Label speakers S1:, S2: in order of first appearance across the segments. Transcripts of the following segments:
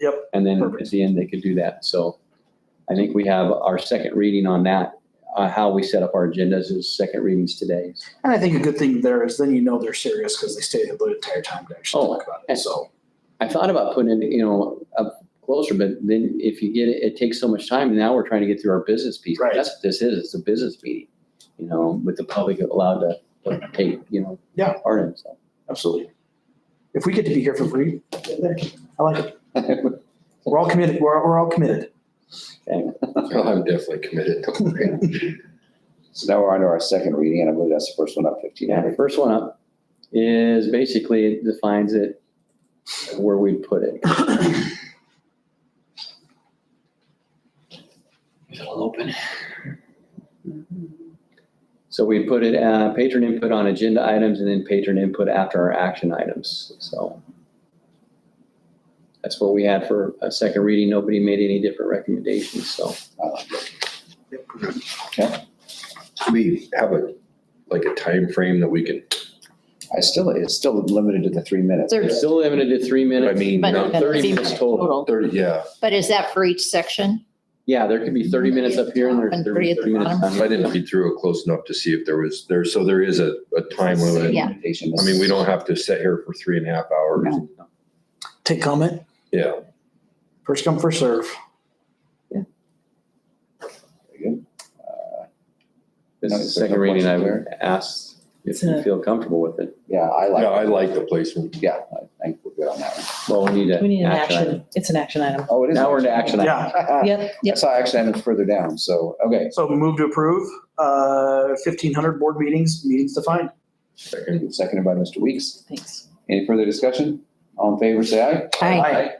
S1: Yep.
S2: And then at
S1: Perfect.
S2: the end, they could do that. So I think we have our second reading on that, uh, how we set up our agendas is second readings today.
S1: And I think a good thing there is then you know they're serious because they stayed the entire time to actually
S2: Oh,
S1: talk about it,
S2: and-
S1: so.
S2: I thought about putting in, you know, up closer, but then if you get it, it takes so much time. Now we're trying to get through our business piece.
S1: Right.
S2: That's what this is. It's a business meeting, you know, with the public allowed to to take, you know,
S1: Yeah.
S2: part in. So
S1: Absolutely. If we get to be here for free, I like it. We're all committed, we're, we're all committed.
S3: Well, I'm definitely committed. Don't worry.
S4: So now we're on to our second reading, and I believe that's the first one up, fifteen
S2: Yeah, the
S4: hundred.
S2: first one up is basically it defines it where we put it. Is it all open? So we put it, uh, patron input on agenda items and then patron input after our action items, so. That's what we had for a second reading. Nobody made any different recommendations, so.
S3: Do We have a, like a time frame that we can,
S4: I still, it's still limited to the three minutes.
S5: They're-
S2: It's still limited to three
S3: I
S2: minutes.
S3: mean,
S5: But
S3: not
S5: but
S2: Thirty
S5: it's
S2: minutes
S5: even
S2: total.
S3: thirty, yeah.
S5: But is that for each section?
S2: Yeah, there could be thirty minutes up here and there's
S5: And
S2: thirty
S5: three at the
S2: thirty minutes.
S5: bottom.
S2: down here.
S3: I didn't read through it close enough to see if there was, there, so there is a, a time limit.
S5: Yeah.
S3: I mean, we don't have to sit here for three and a half hours.
S1: Take comment,
S3: Yeah.
S1: first come, first serve.
S2: This is the second reading, I would ask if you feel comfortable with it.
S4: Yeah, I like.
S3: Yeah, I like the placement.
S4: Yeah, I think we're good on that one.
S2: Well, we need
S6: We need
S2: an
S6: an
S2: action. item. Uh,
S6: action, it's an action item.
S4: Oh, it is.
S2: Now we're to action
S1: item.
S6: Yep,
S4: I
S6: yep.
S4: saw action items further down, so, okay,
S1: So move to approve, uh, fifteen hundred board meetings, meetings defined.
S3: Second.
S4: seconded by Mr. Weeks.
S6: Thanks.
S4: Any further discussion? All in favor, say aye.
S5: Aye.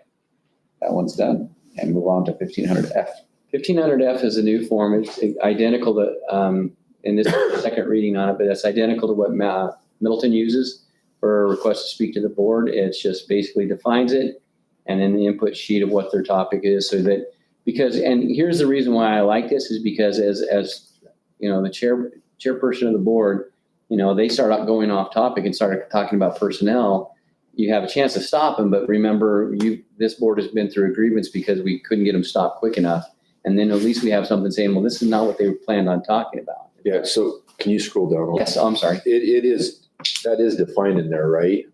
S4: That one's done, and move on to fifteen hundred F.
S2: Fifteen hundred F is a new form. It's identical to, um, and this is the second reading on it, but it's identical to what Ma- Middleton uses for a request to speak to the board. It's just basically defines it and then the input sheet of what their topic is so that, because, and here's the reason why I like this is because as, as, you know, the chair, chairperson of the board, you know, they start out going off topic and start talking about personnel. You have a chance to stop them, but remember you, this board has been through a grievance because we couldn't get them stopped quick enough. And then at least we have something saying, well, this is not what they planned on talking about.
S3: Yeah, so can you scroll down?
S2: Yes, oh, I'm sorry.
S3: It, it is, that is defined in there, right?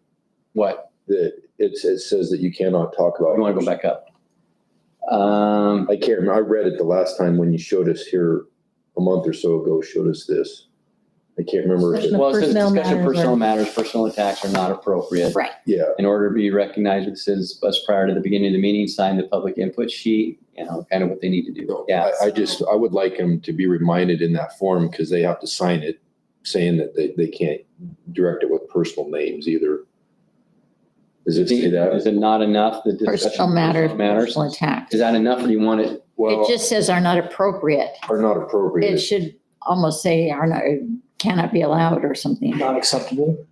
S2: What?
S3: That it's, it says that you cannot talk about.
S2: You want to go back up? Um,
S3: I can't remember. I read it the last time when you showed us here a month or so ago, showed us this. I can't remember. if it-
S6: Discussion of
S2: well, it says
S6: personnel
S2: discussion of
S6: matters are-
S2: personal matters, personal attacks are not appropriate.
S5: Right.
S3: Yeah,
S2: In order to be recognized, it says us prior to the beginning of the meeting, sign the public input sheet, you know, kind of what they need to do.
S3: no,
S2: Yeah.
S3: I, I just, I would like them to be reminded in that form because they have to sign it saying that they, they can't direct it with personal names either. Does it say
S2: Is
S3: that?
S2: it not enough? The discussion of
S5: Personal matters,
S2: personal matters?
S5: personal attacks.
S2: Is that enough or do you want it?
S3: Well,
S5: It just says are not appropriate.
S3: are not
S5: It
S3: appropriate.
S5: should almost say are not, cannot be allowed or something.
S1: Not acceptable.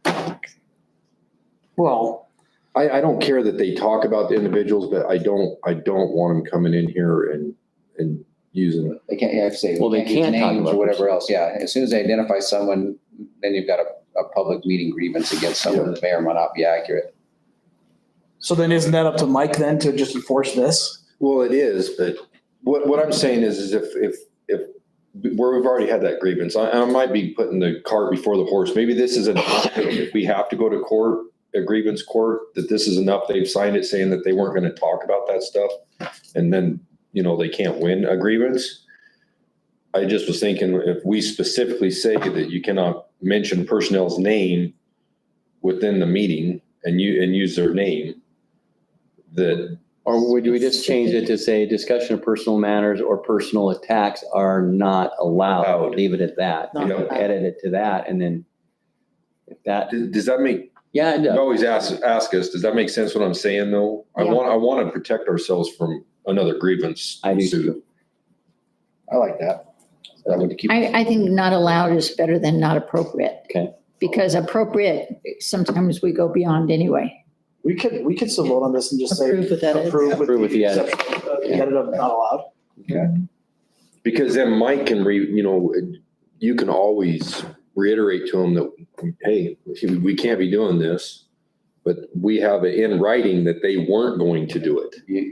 S1: Well,
S3: I, I don't care that they talk about the individuals, but I don't, I don't want them coming in here and, and using
S4: They can't, yeah, I have to say.
S2: Well, they
S4: use
S2: can't talk
S4: names
S2: about
S4: Or whatever else, yeah. As soon as they identify someone, then you've got a, a public meeting grievance against someone that may or may not be accurate.
S1: so then isn't that up to Mike then to just enforce this?
S3: Well, it is, but what, what I'm saying is, is if, if, if, where we've already had that grievance, I, I might be putting the cart before the horse. Maybe this is enough. If we have to go to court, a grievance court, that this is enough. They've signed it saying that they weren't going to talk about that stuff. And then, you know, they can't win a grievance. I just was thinking if we specifically say that you cannot mention personnel's name within the meeting and you, and use their name, that
S2: Or would we just change it to say discussion of personal matters or personal attacks are not allowed?
S3: Allowed.
S2: Leave it at that.
S3: Not allowed.
S2: Edit it to that and then if that,
S3: Does does that make,
S2: yeah, it
S3: you
S2: does.
S3: always ask, ask us, does that make sense what I'm saying though? I
S5: Yeah.
S3: want, I want to protect ourselves from another grievance.
S2: I do
S3: suit.
S2: too.
S4: I like that. That would keep.
S5: I, I think not allowed is better than not appropriate.
S2: Okay.
S5: Because appropriate, sometimes we go beyond anyway.
S1: We could, we could still vote on this and just say.
S6: Approve with that.
S1: Approve
S2: Approve
S1: with the
S2: edit.
S1: exception, of the edit of not allowed.
S3: Because then Mike can re, you know, you can always reiterate to him that, hey, we can't be doing this. But we have it in writing that they weren't going to do it.
S4: You,